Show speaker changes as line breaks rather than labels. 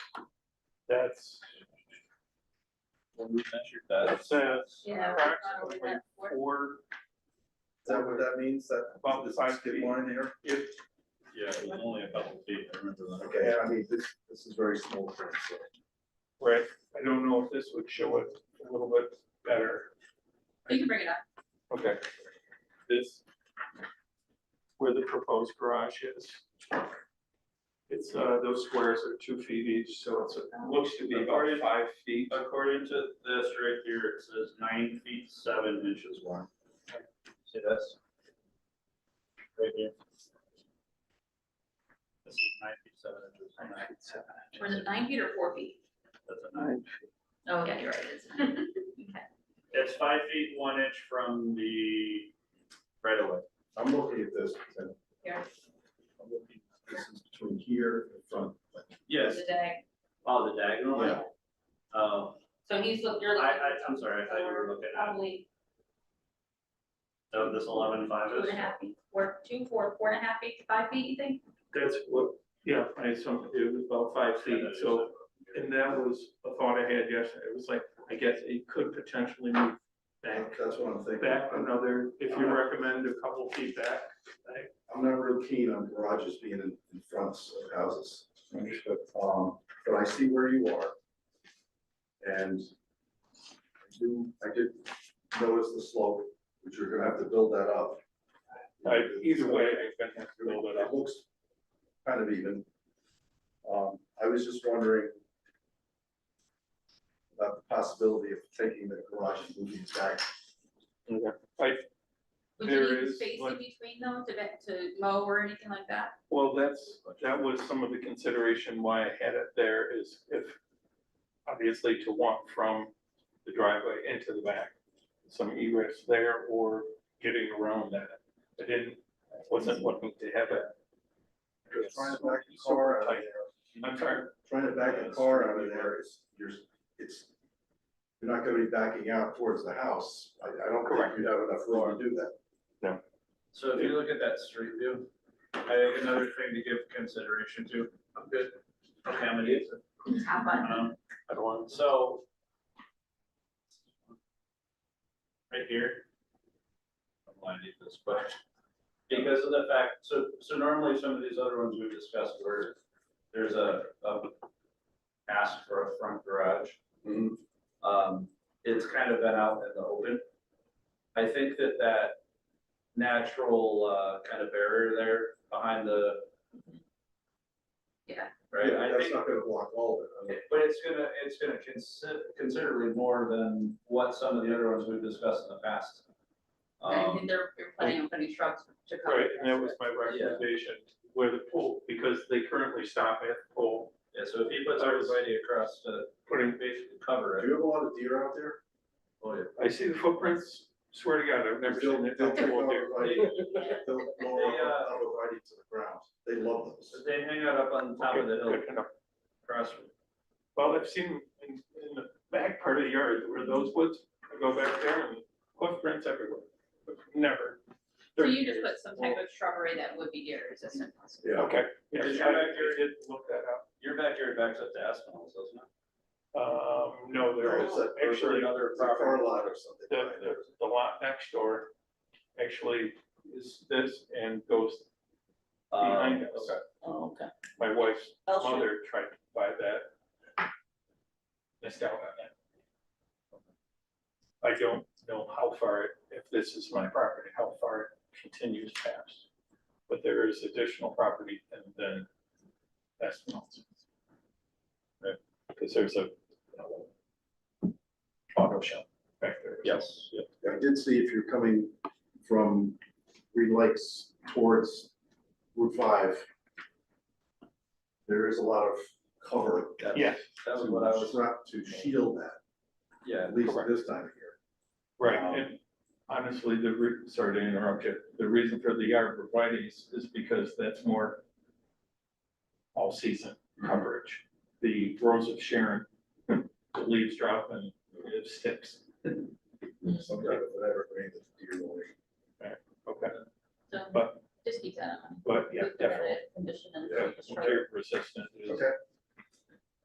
That's,
When we measured
that
that,
says
Yeah.
approximately four,
that what that means, that?
About the five
skip
feet.
line here?
if,
yeah, it was only a couple feet, I remember that.
Okay, I mean, this, this is very small print, so.
right, I don't know if this would show it a little bit better.
You can bring it up.
Okay. This, where the proposed garage is. It's, uh, those squares are two feet each, so it's, it looks to be about five feet.
According to this right here, it says nine feet, seven inches wide. See this? Right here. This is nine feet, seven inches. Nine feet, seven
Was it nine feet or four feet?
That's a nine.
Oh, yeah, you're right, it is. Okay.
It's five feet, one inch from the right away.
I'm looking at this, and
Here,
I'm looking, this is between here and front.
Yes,
today.
oh, the diagonal line?
Yeah.
Oh,
So he's, look- you're
I,
looking.
I, I'm sorry, I thought you were looking at,
Probably
so this eleven five
two and
is.
a half feet, four, two, four, four and a half feet to five feet, you think?
That's what, yeah, I assumed it was about five feet, so, and that was a thought I had yesterday, it was like, I guess it could potentially move back,
That's what I'm thinking.
back another, if you recommend a couple feet back.
I'm not real keen on garages being in, in fronts of houses. Um, but I see where you are. And I do, I did notice the slope, which you're gonna have to build that up.
Like, either way, I'm gonna have to build it up.
It looks kind of even. Um, I was just wondering about the possibility of taking the garage and moving it back.
Would you
There
need
is,
space in
like-
between them to, vet- to mow or anything like that?
Well, that's, that was some of the consideration why I had it there is if, obviously to walk from the driveway into the back. Some egress there or getting around that. I didn't, wasn't looking to have it.
Trying to back a car out of there.
I'm sorry,
trying to back a car out of there is, you're, it's, you're not gonna be backing out towards the house. I, I don't
Correct.
think you'd have enough room to do that.
So if you look at that street view, I think another thing to give consideration to, I'm good. Okay, I'm gonna use it.
Have fun.
Um,
I don't want,
so. Right here,
I'm lining this, but
because of the fact, so, so normally some of these other ones we've discussed where there's a, a ask for a front garage.
Mhm.
Um, it's kind of been out in the open. I think that that natural, uh, kind of barrier there behind the.
Yeah.
Right,
Yeah,
I
That's
think,
not gonna block all of it.
but it's gonna, it's gonna consider considerably more than what some of the other ones we've discussed in the past.
I
Um,
think they're, they're planning on putting shrubs to cover.
right, and that
this.
was my recommendation where the pool, because they currently stop at the pool,
yeah, so if he puts everybody across to
putting,
basically cover
Do
it,
you have a lot of deer out there?
oh, yeah.
I see the footprints, swear to God, I've never seen it.
They'll- they'll go right-
Yeah.
They'll go right they'll go right into the ground. They love those.
So They hang out up on top of the hill
Good enough.
across from
Well, I've seen in, in the back part of the yard where those woods, I go back there and footprints everywhere, but never.
So you just put some type of shrubbery that would be deer resistant possibly.
Yeah.
Okay, yes,
Did you
I I
back there?
did look that
Your backyard backs up to Aspinall's, doesn't it?
up. Um, no, there
Oh,
is
is that-
Or is there
actually, the,
another
It's a
property.
car lot or something. right
the,
there.
the lot next door actually is this and goes
Uh,
behind us.
Oh, okay. Oh,
My wife's
L shape.
mother tried to buy that. Missed out on that. I don't know how far, it- if this is my property, how far it continues past. But there is additional property and then that's not. Right, because there's a uh, auto shop back there.
Yes, yeah.
I did see if you're coming from Green Lakes towards Route five. There is a lot of cover
that's-
Yeah.
That was
to
what I was,
shrub- to shield that,
yeah,
at least
Correct.
this time of year.
Right, and honestly, the, re- sorry to interrupt you, the reason for the arborvitae's is because that's more all-season coverage. The rose of Sharon, the leaves drop and it sticks.
Some kind of an evergreen that's deer only.
Okay,
So
But-
just keep that in mind.
but yeah,
We put that
definitely.
in Condition and
Yeah,
just shrub.
Deer resistant is
Okay,